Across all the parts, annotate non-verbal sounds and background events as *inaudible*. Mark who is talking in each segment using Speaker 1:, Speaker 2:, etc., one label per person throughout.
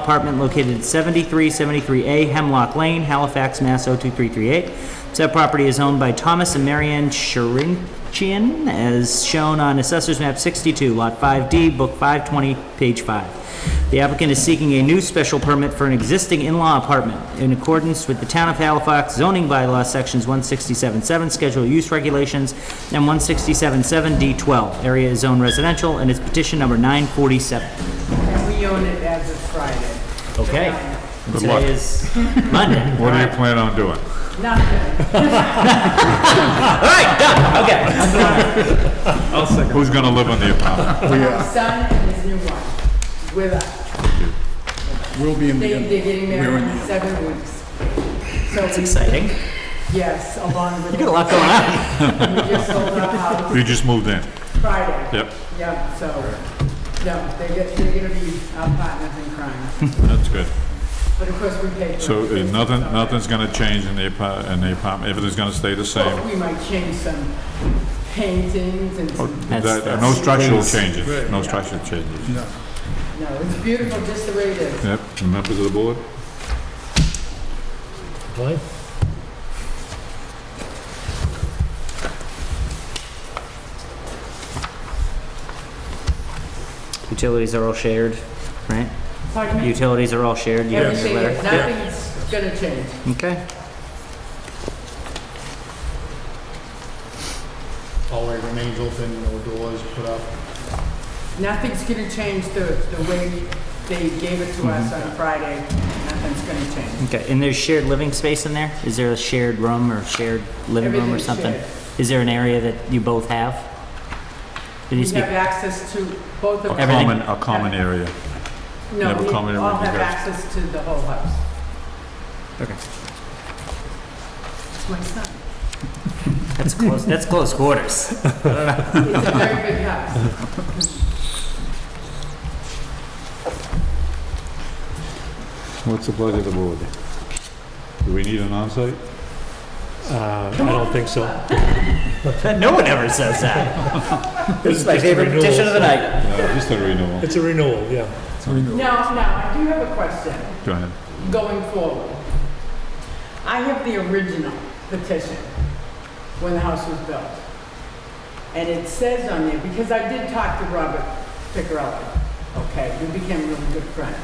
Speaker 1: apartment located at 7373A Hemlock Lane, Halifax, Mass. 02338. Said property is owned by Thomas and Marianne Sharinchian, as shown on Assessor's Map 62, Lot 5D, Book 520, Page 5. The applicant is seeking a new special permit for an existing in-law apartment in accordance with the Town of Halifax zoning bylaw sections 167.7 Schedule of Use Regulations and 167.7 D12. Area is zone residential and it's petition number 947.
Speaker 2: And we own it as of Friday.
Speaker 1: Okay.
Speaker 3: Good
Speaker 1: Today
Speaker 3: luck.
Speaker 1: is Monday.
Speaker 3: What do you plan on doing?
Speaker 2: Nothing.
Speaker 1: All right, done. Okay.
Speaker 3: Who's gonna live in the apartment?
Speaker 2: My son and his new wife with us.
Speaker 4: We'll be in
Speaker 2: They,
Speaker 4: the,
Speaker 2: they're getting
Speaker 4: we're
Speaker 2: married
Speaker 4: in
Speaker 2: in seven weeks.
Speaker 1: That's exciting.
Speaker 2: Yes, along with. You
Speaker 1: Got a lot going on.
Speaker 2: We just sold our house
Speaker 3: You just moved in?
Speaker 2: Friday.
Speaker 3: Yep,
Speaker 2: Yeah, so, no, they get, they're gonna be our partners in crime.
Speaker 3: that's good.
Speaker 2: But of course, we pay. for
Speaker 3: So uh,
Speaker 2: it.
Speaker 3: nothing,
Speaker 2: So
Speaker 3: nothing's gonna change in the apa- in the apartment, everything's gonna stay the same?
Speaker 2: We might change some paintings and some,
Speaker 3: That- uh, No structural changes, no structural changes.
Speaker 2: no, it's beautiful just the way it is.
Speaker 3: Yep, and members of the board?
Speaker 1: Utilities are all shared, right?
Speaker 2: Pardon me?
Speaker 1: Utilities are all shared. You got your
Speaker 2: Everything,
Speaker 1: letter.
Speaker 2: is- nothing's gonna change.
Speaker 1: Okay.
Speaker 4: hallway remains open, no doors put up.
Speaker 2: Nothing's gonna change the, the way they gave it to us on Friday. Nothing's gonna change.
Speaker 1: Okay. And there's shared living space in there? Is there a shared room or shared living room or
Speaker 2: Everything's
Speaker 1: something?
Speaker 2: shared.
Speaker 1: Is there an area that you both have? Did
Speaker 2: We
Speaker 1: you speak?
Speaker 2: have access to both
Speaker 3: A
Speaker 2: of us.
Speaker 1: Everything.
Speaker 3: common, a common area.
Speaker 2: No,
Speaker 3: have a
Speaker 2: we all
Speaker 3: common room, you
Speaker 2: have
Speaker 3: guys.
Speaker 2: access to the whole house.
Speaker 1: Okay.
Speaker 2: It's my son.
Speaker 1: That's close. That's close quarters. *laughs*
Speaker 2: It's a very big house.
Speaker 3: What's the pleasure of the board? Do we need an onsite?
Speaker 5: Uh, I don't think so.
Speaker 1: no one ever says that. This is my
Speaker 5: Just
Speaker 1: favorite
Speaker 5: renewals.
Speaker 1: petition of the night.
Speaker 3: Uh, Just a renewal.
Speaker 5: It's a renewal, yeah.
Speaker 2: No, no, I do have a question
Speaker 3: Go ahead.
Speaker 2: going forward. I have the original petition when the house was built. And it says on there, because I did talk to Robert Picarelli, okay, we became really good friends.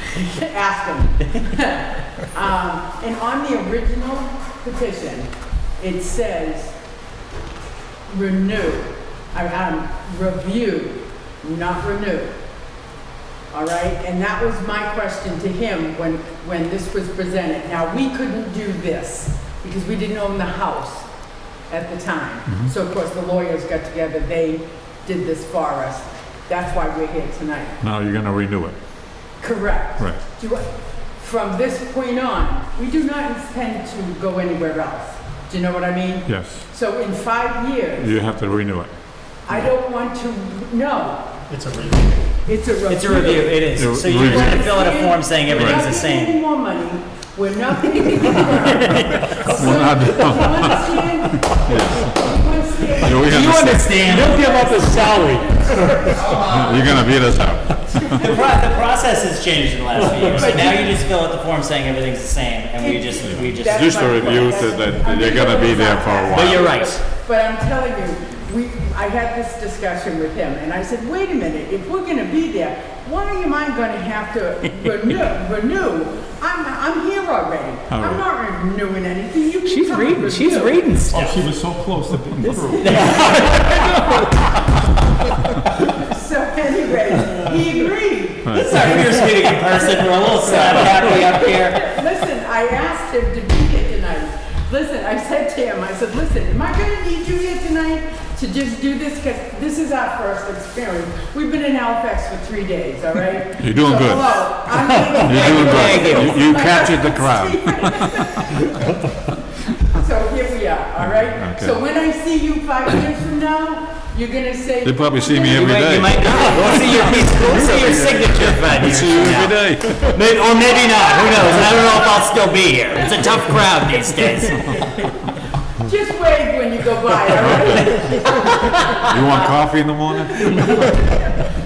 Speaker 2: *laughs* Ask him. *laughs* Um, And on the original petition, it says, renew, I- um, review, not renew. All right, and that was my question to him when, when this was presented. Now, we couldn't do this because we didn't own the house at the time. So of course, the lawyers got together, they did this for us. That's why we're here tonight.
Speaker 3: Now you're gonna renew it,
Speaker 2: Correct.
Speaker 3: right?
Speaker 2: Do I- From this point on, we do not intend to go anywhere else. Do you know what I mean?
Speaker 3: Yes,
Speaker 2: So in five years,
Speaker 3: you have to renew it.
Speaker 2: I don't want to, no,
Speaker 5: It's a renewal.
Speaker 2: it's a review.
Speaker 1: It's a review. It is. So
Speaker 3: Re-
Speaker 1: you're going to
Speaker 3: review.
Speaker 1: fill out a form saying everything's the same.
Speaker 2: We're not getting any more money, we're not getting any more. We're
Speaker 3: not- *laughs* You
Speaker 1: You understand?
Speaker 5: You'll give up a salary.
Speaker 3: You're gonna beat us out.
Speaker 1: The, pro- the process has changed in the last few years. So now you just fill out the form saying everything's the same, and we just we just.
Speaker 2: That's
Speaker 3: Just a
Speaker 2: my
Speaker 3: review
Speaker 2: point.
Speaker 3: that that you're gonna be there for a while.
Speaker 1: But you're right.
Speaker 2: But I'm telling you, we, I had this discussion with him, and I said, wait a minute, if we're gonna be there, why am I gonna have to renew, renew? I'm, I'm here already,
Speaker 3: All right.
Speaker 2: I'm not renewing anything, you can come and renew.
Speaker 1: reading stuff.
Speaker 3: Oh, she was so close to being through.
Speaker 2: So anyway, he agreed,
Speaker 1: It's our first meeting in person. We're a little sad happy up here.
Speaker 2: Listen, I asked him to be here tonight. Listen, I said to him, I said, listen, am I gonna need you here tonight to just do this? Cause this is our first experience. We've been in Halifax for three days, all right?
Speaker 3: You're doing
Speaker 2: So,
Speaker 3: good.
Speaker 2: hello,
Speaker 3: *laughs*
Speaker 2: I'm
Speaker 3: You're doing good. You you captured the crowd.
Speaker 2: *laughs* So here we are, all right?
Speaker 3: Okay.
Speaker 2: So when I see you five years from now, you're gonna say.
Speaker 3: They probably see me
Speaker 1: You
Speaker 3: every
Speaker 1: might,
Speaker 3: day.
Speaker 1: you might not. We'll see your, we'll see your signature five
Speaker 3: I
Speaker 1: years
Speaker 3: see you
Speaker 1: from
Speaker 3: every
Speaker 1: now.
Speaker 3: day.
Speaker 1: May- Or maybe not. Who knows? I don't know if I'll still be here. It's a tough crowd these days.
Speaker 2: Just wave when you go by, all right?
Speaker 3: *laughs* You want coffee in the morning? Oh.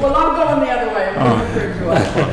Speaker 2: Well, I'm going the other way. I'm going to prove you up.